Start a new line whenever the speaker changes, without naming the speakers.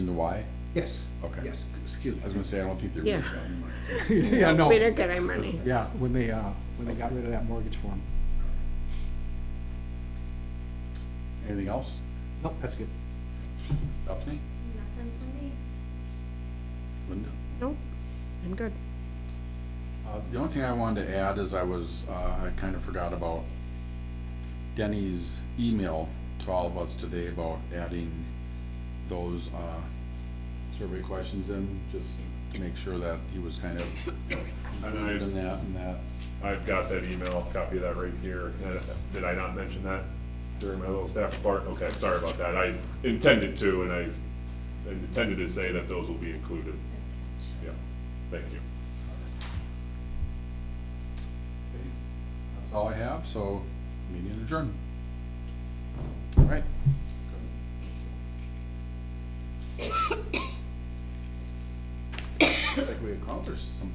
the Y?
Yes.
Okay.
Yes, excuse
I was gonna
me.
say, I don't think they're.
Yeah.
Yeah, no,
We don't get our money.
yeah, when they, uh, when they got rid of that mortgage form.
Anything else?
Nope, that's good.
Daphne?
Nothing for me.
Linda?
Nope, I'm good.
Uh, the only thing I wanted to add is I was, uh, I kind of forgot about Denny's email to all of us today about adding those, uh, survey questions in, just to make sure that he was kind of included in that and that.
I've got that email, copy of that right here. Uh, Did I not mention that during my little staff report? Okay, sorry about that. I intended to, and I intended to say that those will be included. Yeah, thank you.
Okay, That's all I have, so meeting adjourned. All right. Like we accomplished some